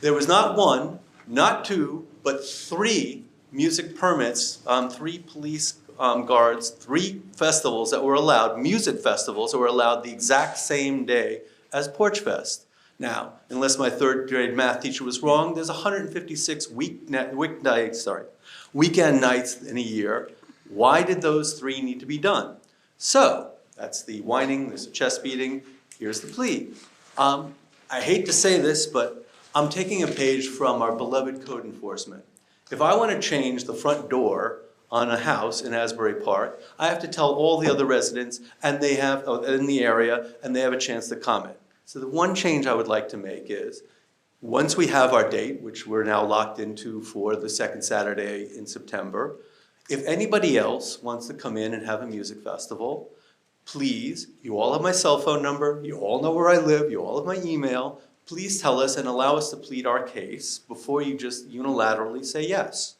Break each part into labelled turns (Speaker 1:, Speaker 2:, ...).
Speaker 1: There was not one, not two, but three music permits, um, three police um, guards, three festivals that were allowed, music festivals that were allowed the exact same day as Porch Fest. Now, unless my third grade math teacher was wrong, there's 156 week, weeknights, sorry, weekend nights in a year. Why did those three need to be done? So, that's the whining, there's a chest beating, here's the plea. Um, I hate to say this, but I'm taking a page from our beloved code enforcement. If I want to change the front door on a house in Asbury Park, I have to tell all the other residents and they have, uh, in the area, and they have a chance to comment. So the one change I would like to make is, once we have our date, which we're now locked into for the second Saturday in September, if anybody else wants to come in and have a music festival, please, you all have my cell phone number, you all know where I live, you all have my email, please tell us and allow us to plead our case before you just unilaterally say yes.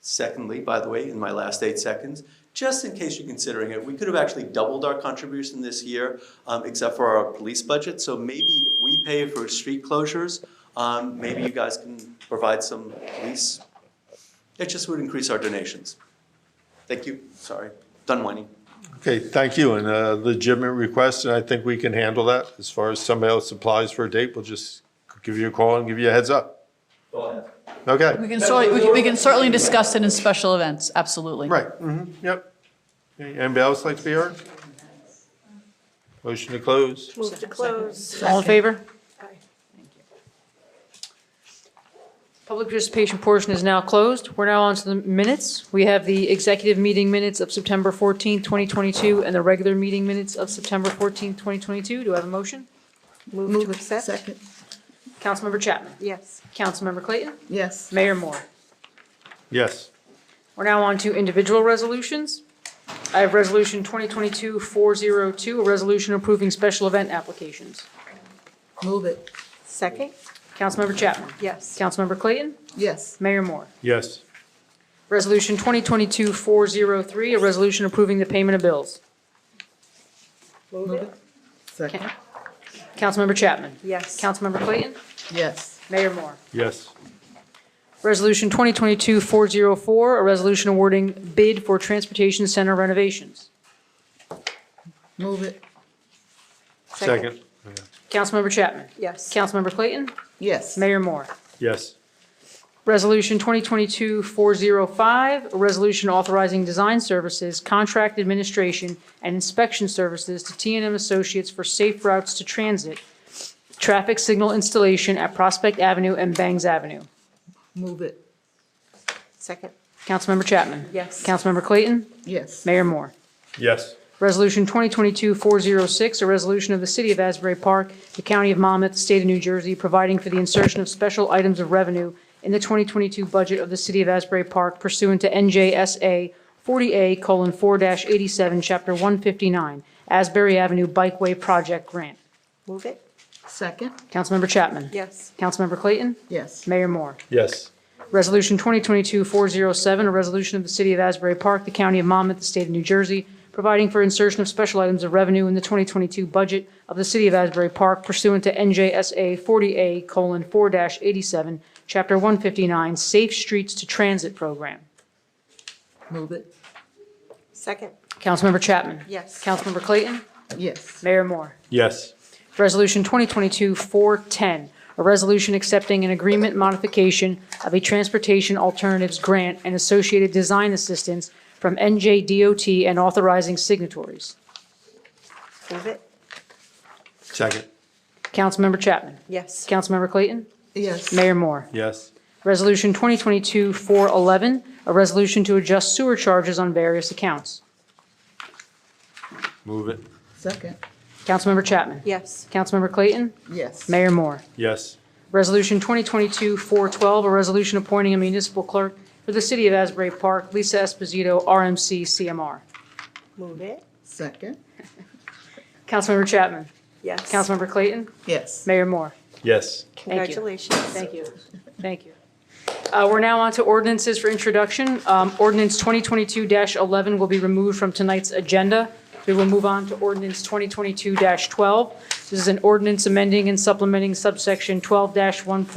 Speaker 1: Secondly, by the way, in my last eight seconds, just in case you're considering it, we could have actually doubled our contribution this year, um, except for our police budget, so maybe if we pay for street closures, um, maybe you guys can provide some police. It just would increase our donations. Thank you, sorry, done whining.
Speaker 2: Okay, thank you, and a legitimate request, and I think we can handle that. As far as somebody else applies for a date, we'll just give you a call and give you a heads up.
Speaker 3: We
Speaker 2: Okay,
Speaker 3: can certainly, we can- we can certainly discuss it in special events, absolutely.
Speaker 2: right, mhm, yep. Okay, Anybody else like to be heard? Motion to close.
Speaker 4: Move to close.
Speaker 3: All in favor?
Speaker 4: Public participation portion is now closed. We're now on to the minutes. We have the executive meeting minutes of September 14, 2022, and the regular meeting minutes of September 14, 2022. Do I have a motion?
Speaker 5: Move to accept? Second,
Speaker 4: Councilmember Chapman.
Speaker 5: yes.
Speaker 4: Councilmember Clayton.
Speaker 5: Yes.
Speaker 4: Mayor Moore.
Speaker 2: Yes,
Speaker 4: We're now on to individual resolutions. I have Resolution 2022-402, a resolution approving special event applications.
Speaker 5: Move it. Second?
Speaker 4: Councilmember Chapman.
Speaker 5: Yes.
Speaker 4: Councilmember Clayton.
Speaker 5: Yes.
Speaker 4: Mayor Moore.
Speaker 2: yes,
Speaker 4: Resolution 2022-403, a resolution approving the payment of bills.
Speaker 5: Move it. Second?
Speaker 4: Councilmember Chapman.
Speaker 5: Yes.
Speaker 4: Councilmember Clayton.
Speaker 5: Yes.
Speaker 4: Mayor Moore.
Speaker 2: yes,
Speaker 4: Resolution 2022-404, a resolution awarding bid for transportation center renovations.
Speaker 5: Move it.
Speaker 2: second,
Speaker 4: Councilmember Chapman.
Speaker 5: Yes.
Speaker 4: Councilmember Clayton.
Speaker 5: Yes.
Speaker 4: Mayor Moore.
Speaker 2: yes,
Speaker 4: Resolution 2022-405, a resolution authorizing design services, contract administration, and inspection services to t and m Associates for safe routes to transit, traffic signal installation at Prospect Avenue and Bangs Avenue.
Speaker 5: Move it. Second?
Speaker 4: Councilmember Chapman.
Speaker 5: Yes.
Speaker 4: Councilmember Clayton.
Speaker 5: Yes.
Speaker 4: Mayor Moore.
Speaker 2: yes,
Speaker 4: Resolution 2022-406, a resolution of the City of Asbury Park, the County of Monmouth, the State of New Jersey, providing for the insertion of special items of revenue in the 2022 budget of the City of Asbury Park pursuant to NJSA 40A:4-87, Chapter 159, Asbury Avenue Bikeway Project Grant.
Speaker 5: Move it. Second?
Speaker 4: Councilmember Chapman.
Speaker 5: Yes.
Speaker 4: Councilmember Clayton.
Speaker 5: Yes.
Speaker 4: Mayor Moore.
Speaker 2: yes,
Speaker 4: Resolution 2022-407, a resolution of the City of Asbury Park, the County of Monmouth, the State of New Jersey, providing for insertion of special items of revenue in the 2022 budget of the City of Asbury Park pursuant to NJSA 40A:4-87, Chapter 159, Safe Streets to Transit Program.
Speaker 5: Move it. Second?
Speaker 4: Councilmember Chapman.
Speaker 5: Yes.
Speaker 4: Councilmember Clayton.
Speaker 5: Yes.
Speaker 4: Mayor Moore.
Speaker 2: yes,
Speaker 4: Resolution 2022-410, a resolution accepting an agreement modification of a transportation alternatives grant and associated design assistance from NJDOT and authorizing signatories.
Speaker 5: Move it.
Speaker 2: second,
Speaker 4: Councilmember Chapman.
Speaker 5: Yes.
Speaker 4: Councilmember Clayton.
Speaker 5: Yes.
Speaker 4: Mayor Moore.
Speaker 2: yes,
Speaker 4: Resolution 2022-411, a resolution to adjust sewer charges on various accounts.
Speaker 2: move it,
Speaker 5: Second?
Speaker 4: Councilmember Chapman.
Speaker 5: Yes.
Speaker 4: Councilmember Clayton.
Speaker 5: Yes.
Speaker 4: Mayor Moore.
Speaker 2: yes,
Speaker 4: Resolution 2022-412, a resolution appointing a municipal clerk for the City of Asbury Park, Lisa Esposito, RMC CMR.
Speaker 5: Move it. Second?
Speaker 4: Councilmember Chapman.
Speaker 5: Yes.
Speaker 4: Councilmember Clayton.
Speaker 5: Yes.
Speaker 4: Mayor Moore.
Speaker 2: yes,
Speaker 4: you.
Speaker 5: Congratulations.
Speaker 4: Thank you. Thank you. Uh, We're now on to ordinances for introduction. Um, Ordinance 2022-11 will be removed from tonight's agenda. We will move on to ordinance 2022-12. This is an ordinance amending and supplementing subsection 12-1.